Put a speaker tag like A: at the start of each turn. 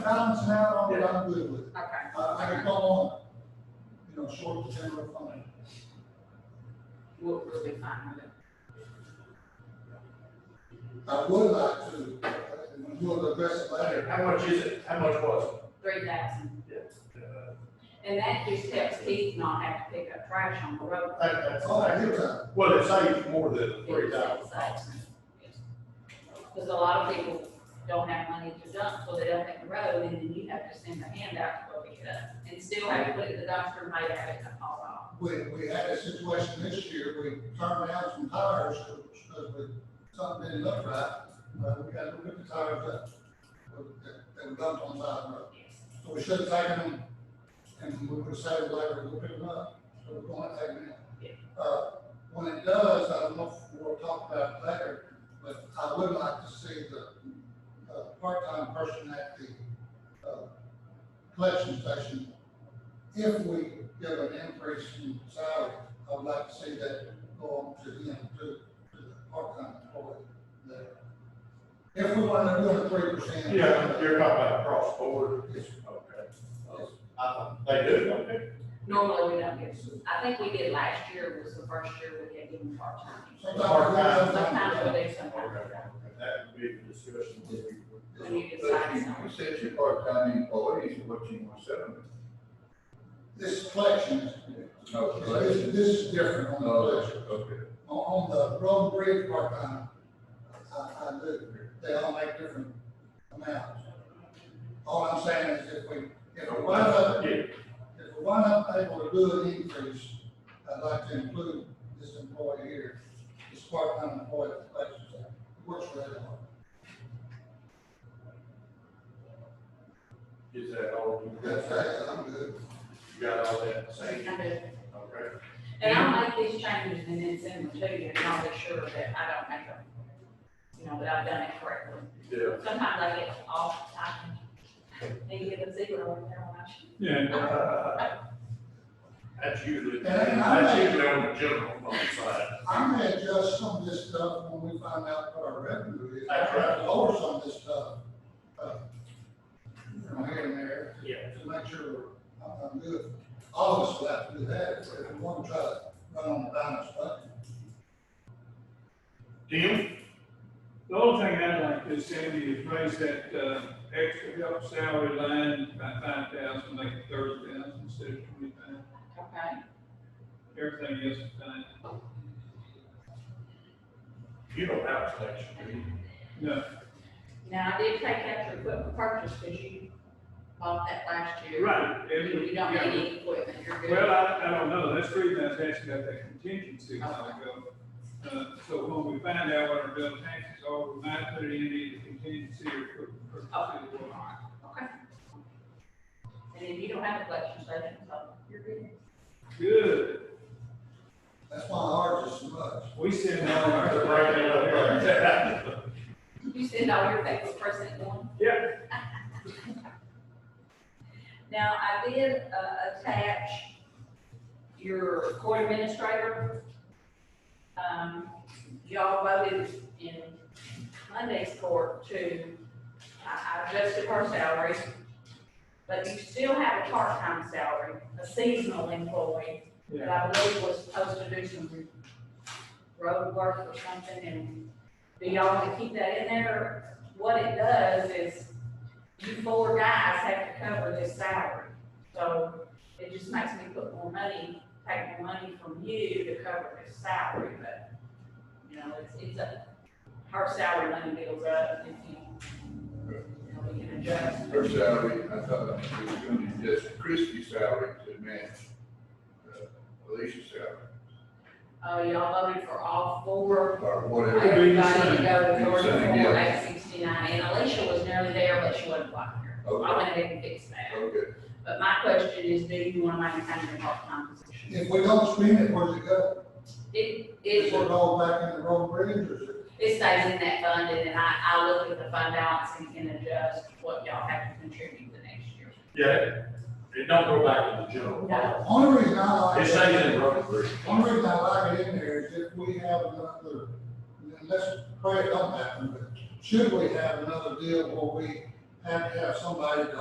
A: That's now, I'm, I'm good with it.
B: Okay.
A: I, I could go on, you know, short of general fund.
B: We'll, we'll be fine with it.
A: I would like to, uh, when you address it later,
C: How much is it? How much was
B: Three thousand.
C: it? Uh,
B: And that just helps Keith not have to pick up trash on the road.
C: That, that's,
A: oh, I hear that.
C: well, it saves more than three thousand.
B: Because a lot of people don't have money to dump, so they don't hit the road, and then you have to send a handout to go pick it up. And still have to put it in the dumpster, and might have it hauled off.
A: We, we had a situation this year, we turned down some tires because we, something didn't look right. But we got to look at the tires that, that- that were dumped on the side of the road.
B: Yes.
A: So we should have taken them and we would have saved labor, we'll pick them up, so we're going to take them in. Uh, when it does, I don't know if we'll talk about it later, but I would like to see the, uh, part-time person at the, uh, collection station if we give an increase in salary, I would like to see that go on to him, to, to the part-time employee there. If we want to do a three percent.
C: Yeah, you're talking about cross border.
A: Uh,
C: Okay. I, they do, don't they?
B: Normally, we don't give, I think we did last year was the first year we had given part-time.
A: Sometimes.
B: Sometimes we do, sometimes we don't.
C: That would be the discussion. we would-
B: When you
D: But
B: decide
D: you
B: something.
D: you said your part-time employees, what you want to set them?
A: This collection,
D: Oh,
A: this,
D: collection.
A: this is different on the collection.
D: Okay.
A: On, on the road and bridge part-time, I, I do, they all make different amounts. All I'm saying is if we, if we wind up
C: Yeah,
A: If we're not able to do an increase, I'd like to include this employee here, this part-time employee at the collection center, who works for that department.
C: is that all? you got?
A: That's right, I'm good.
C: You got all that, same,
B: I do.
C: okay.
B: And I'll make these changes and then send them to you, and I'll be sure that I don't make them, you know, that I've done it correctly.
C: Yeah,
B: Sometimes I get off, I can, and get a zero, and then I should.
C: Yeah. and, uh, That's usually,
A: And I- and I-
C: that's usually on the general fund side.
A: I'm gonna adjust some of this stuff when we find out what our revenue is.
C: That's right.
A: I to Lower some of this stuff, uh, you know, here and there. to-
C: Yeah.
A: To make sure I'm, I'm good. All of us will have to do that if we want to try to run on the balance budget.
C: Tim?
E: The only thing I'd like to, Sandy, is raise that, uh, extra help salary line by five thousand, make it thirty thousand instead of twenty-five.
B: Okay.
E: Everything else is fine.
C: You don't have a collection, do you?
E: No,
B: Now, I did take out your equipment purchase, because you bought that last year.
E: right,
B: You
E: every,
B: you don't need
E: yeah.
B: any equipment, you're good.
E: Well, I, I don't know, that's the reason I was asking about that contingency a while ago. Uh, so when we find out what our bill taxes are, we might put it in either contingency or. or-
B: Okay. Okay. And if you don't have a collection station, so you're good.
E: Good,
A: That's why ours is so much.
E: we send all our.
B: You send all your papers first thing one?
E: Yeah.
B: Now, I did, uh, attach your court administrator. Um, y'all voted in Monday's court to, I, I adjusted her salary. But you still have a part-time salary, a seasonal employee, that
E: Yeah,
B: I believe was supposed to do some road work or something, and do y'all wanna keep that in there? What it does is, you four guys have to cover this salary, so it just makes me put more money, take more money from you to cover this salary, but, you know, it's, it's a, her salary money goes up, if you, you know, we can adjust.
D: Her salary, I thought we were going to adjust Christie's salary to match uh, Alicia's salary,
B: Uh, y'all voted for all four
D: or whatever.
E: It'd be the
B: Everybody to
E: same.
B: go to
D: Be the
B: Georgia
D: same,
B: for
D: yeah.
B: Act sixty-nine, and Alicia was nearly there, but she wasn't quite there. I
D: Okay,
B: went ahead and fixed that.
D: okay.
B: But my question is, do you want to maintain your part-time position?
A: If we don't spend it, where's it go?
B: It,
A: Is
B: it,
A: it all back in the road bridge or is it?
B: it stays in that fund, and then I, I look at the fund balance and can adjust what y'all have to contribute the next year.
C: Yeah, it don't go back to the general. fund.
A: Only reason I like.
C: It stays in the road bridge.
A: Only reason I like it in there is if we have another, unless, pray it don't happen, but should we have another deal where we have to have somebody to